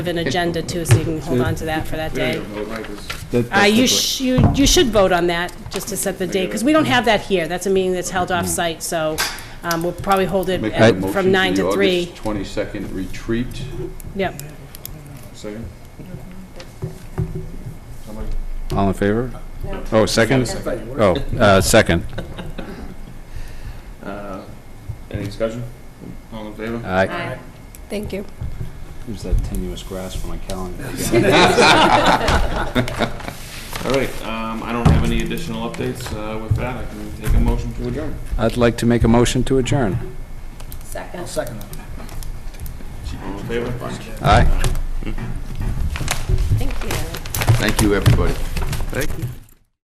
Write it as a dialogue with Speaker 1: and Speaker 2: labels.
Speaker 1: of an agenda too, so you can hold on to that for that day. Uh,
Speaker 2: That- that's
Speaker 1: You
Speaker 2: the-
Speaker 1: sh- you you should vote on that, just to set the date, because we don't have that here. That's a meeting that's held off-site, so um, we'll probably hold it
Speaker 2: Make a
Speaker 1: at-
Speaker 2: motion for
Speaker 1: from 9
Speaker 2: the
Speaker 1: to 3.
Speaker 2: August 22nd retreat.
Speaker 1: Yep.
Speaker 3: Second?
Speaker 4: All in favor? Oh, second? Oh, uh, second.
Speaker 3: Uh, Any discussion? All in favor?
Speaker 4: I
Speaker 5: Thank you.
Speaker 4: There's that tenuous grasp for my calendar.
Speaker 3: All right, um, I don't have any additional updates. Uh, With that, I can take a motion to adjourn.
Speaker 4: I'd like to make a motion to adjourn.
Speaker 5: Second.
Speaker 3: All in favor?
Speaker 4: Aye.
Speaker 5: Thank you.
Speaker 2: Thank you, everybody.